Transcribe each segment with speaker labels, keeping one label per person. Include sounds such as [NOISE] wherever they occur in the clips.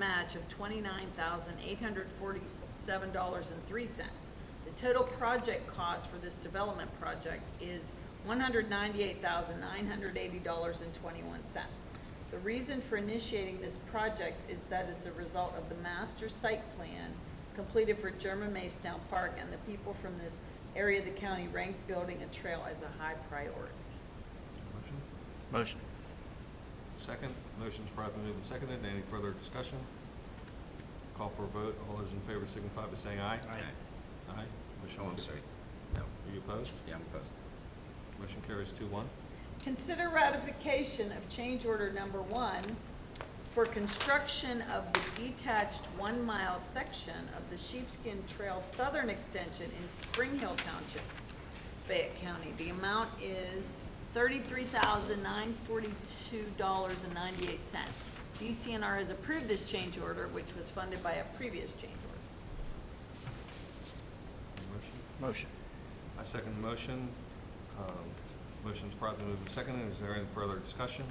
Speaker 1: match of twenty-nine thousand eight hundred forty-seven dollars and three cents. The total project cost for this development project is one hundred ninety-eight thousand nine hundred eighty dollars and twenty-one cents. The reason for initiating this project is that it's a result of the master site plan completed for German Maystown Park, and the people from this area of the county ranked building a trail as a high priority.
Speaker 2: Motion?
Speaker 3: Motion.
Speaker 2: Second. Motion's promptly moved and seconded. Any further discussion? Call for a vote. All those in favor signify by saying aye.
Speaker 4: Aye.
Speaker 2: Aye. Motion
Speaker 4: Oh, I'm
Speaker 2: carries.
Speaker 4: sorry. No.
Speaker 2: Are you opposed?
Speaker 4: Yeah, I'm opposed.
Speaker 2: Motion carries two one.
Speaker 1: Consider ratification of change order number one for construction of the detached one-mile section of the Sheepskin Trail Southern Extension in Spring Hill Township, Fayette County. The amount is thirty-three thousand nine forty-two dollars and ninety-eight cents. DCNR has approved this change order, which was funded by a previous change order.
Speaker 2: Motion?
Speaker 3: Motion.
Speaker 2: I second the motion. Um, Motion's promptly moved and seconded. Is there any further discussion?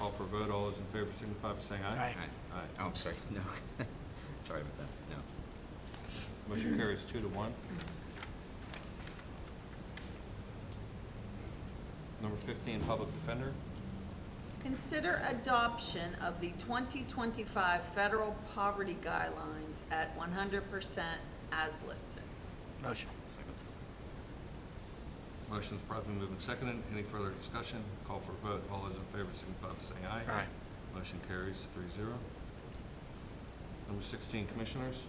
Speaker 2: Call for a vote. All those in favor signify by saying aye.
Speaker 4: Aye.
Speaker 2: Aye.
Speaker 4: Oh, I'm sorry, no. [LAUGHS] Sorry about that, no.
Speaker 2: Motion carries two to one. Number fifteen, public defender.
Speaker 1: Consider adoption of the 2025 federal poverty guidelines at 100% as listed.
Speaker 3: Motion.
Speaker 4: Second.
Speaker 2: Motion's promptly moved and seconded. Any further discussion? Call for a vote. All those in favor signify by saying aye.
Speaker 3: Aye.
Speaker 2: Motion carries three zero. Number sixteen, commissioners.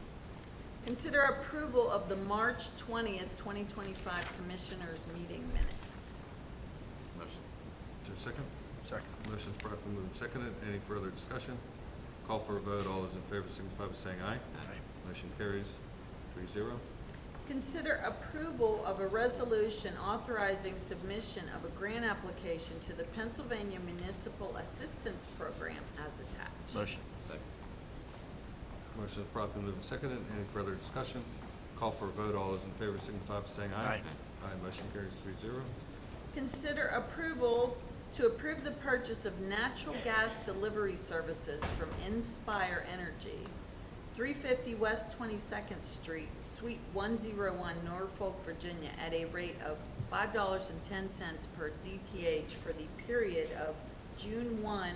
Speaker 1: Consider approval of the March 20th, 2025 Commissioners' Meeting Minutes.
Speaker 4: Motion.
Speaker 2: Is there a second?
Speaker 3: Second.
Speaker 2: Motion's promptly moved and seconded. Any further discussion? Call for a vote. All those in favor signify by saying aye. Motion carries three zero.
Speaker 1: Consider approval of a resolution authorizing submission of a grant application to the Pennsylvania Municipal Assistance Program as attached.
Speaker 3: Motion.
Speaker 4: Second.
Speaker 2: Motion is promptly moved and seconded. Any further discussion? Call for a vote. All those in favor signify by saying aye.
Speaker 3: Aye.
Speaker 2: Aye, motion carries three zero.
Speaker 1: Consider approval to approve the purchase of natural gas delivery services from Inspire Energy, 350 West 22nd Street, Suite 101, Norfolk, Virginia, at a rate of $5.10 per DTH for the period of June 1,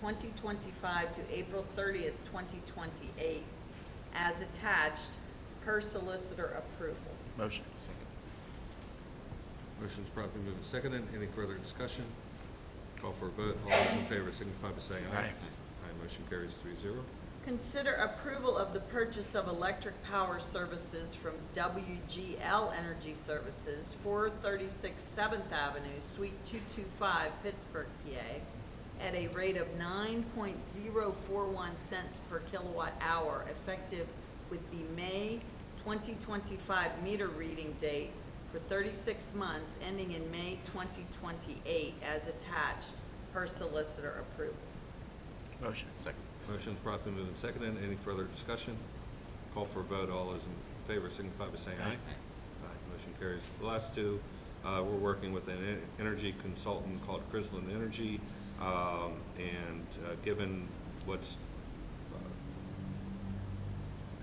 Speaker 1: 2025 to April 30th, 2028, as attached per solicitor approval.
Speaker 3: Motion.
Speaker 4: Second.
Speaker 2: Motion is promptly moved and seconded. Any further discussion? Call for a vote. All those in favor signify by saying aye.
Speaker 3: Aye.
Speaker 2: Aye, motion carries three zero.
Speaker 1: Consider approval of the purchase of electric power services from WGL Energy Services, 436 Seventh Avenue, Suite 225, Pittsburgh, PA, at a rate of 9.041 cents per kilowatt hour, effective with the May 2025 meter reading date for 36 months, ending in May 2028, as attached per solicitor approval.
Speaker 3: Motion.
Speaker 4: Second.
Speaker 2: Motion is promptly moved and seconded. Any further discussion? Call for a vote. All those in favor signify by saying aye. Aye, motion carries. The last two, uh, we're working with an en- energy consultant called Crislin Energy. um, And uh, given what's uh,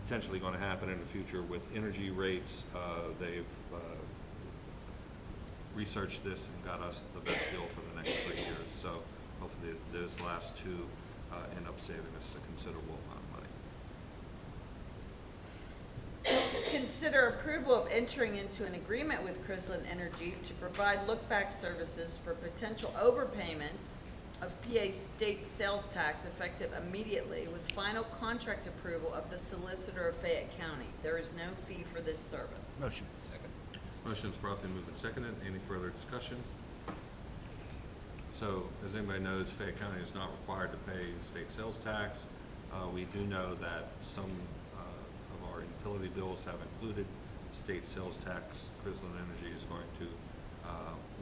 Speaker 2: potentially going to happen in the future with energy rates, uh, they've uh, researched this and got us the best deal for the next three years. So hopefully those last two uh, end up saving us a considerable amount of money.
Speaker 1: Consider approval of entering into an agreement with Crislin Energy to provide look-back services for potential overpayments of PA state sales tax effective immediately with final contract approval of the solicitor of Fayette County. There is no fee for this service.
Speaker 3: Motion.
Speaker 4: Second.
Speaker 2: Motion is promptly moved and seconded. Any further discussion? So, as anybody knows, Fayette County is not required to pay state sales tax. Uh, we do know that some, uh, of our utility bills have included state sales tax. Crislin Energy is going to, uh,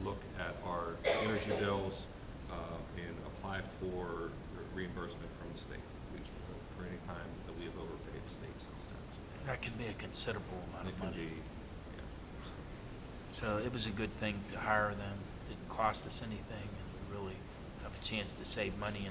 Speaker 2: look at our energy bills, uh, and apply for reimbursement from the state We- for any time that we have overpaid state sales tax.
Speaker 3: That could be a considerable amount
Speaker 2: It
Speaker 3: of
Speaker 2: could
Speaker 3: money.
Speaker 2: be, yeah, so.
Speaker 3: So it was a good thing to hire them. Didn't cost us anything, and we really have a chance to save money in